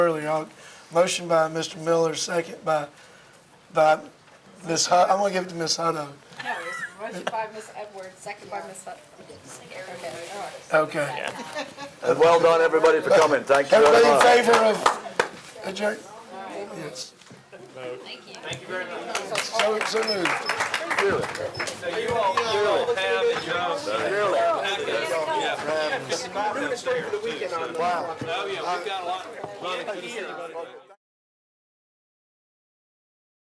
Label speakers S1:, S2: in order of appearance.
S1: earlier on. Motion by Mr. Miller, second by, by Ms. Hud, I'm gonna give it to Ms. Hutto.
S2: No, it's motion by Ms. Edwards, second by Ms. Hudson. Okay, all right.
S1: Okay.
S3: And well done, everybody, for coming. Thank you very
S1: Everybody in
S3: much.
S1: favor of adjourn? Yes. Thank you. Thank you very much. So, so moved.
S3: Really?
S4: We're gonna stay for the weekend on the.
S3: Wow.
S4: Oh, yeah, we've got a lot. Well,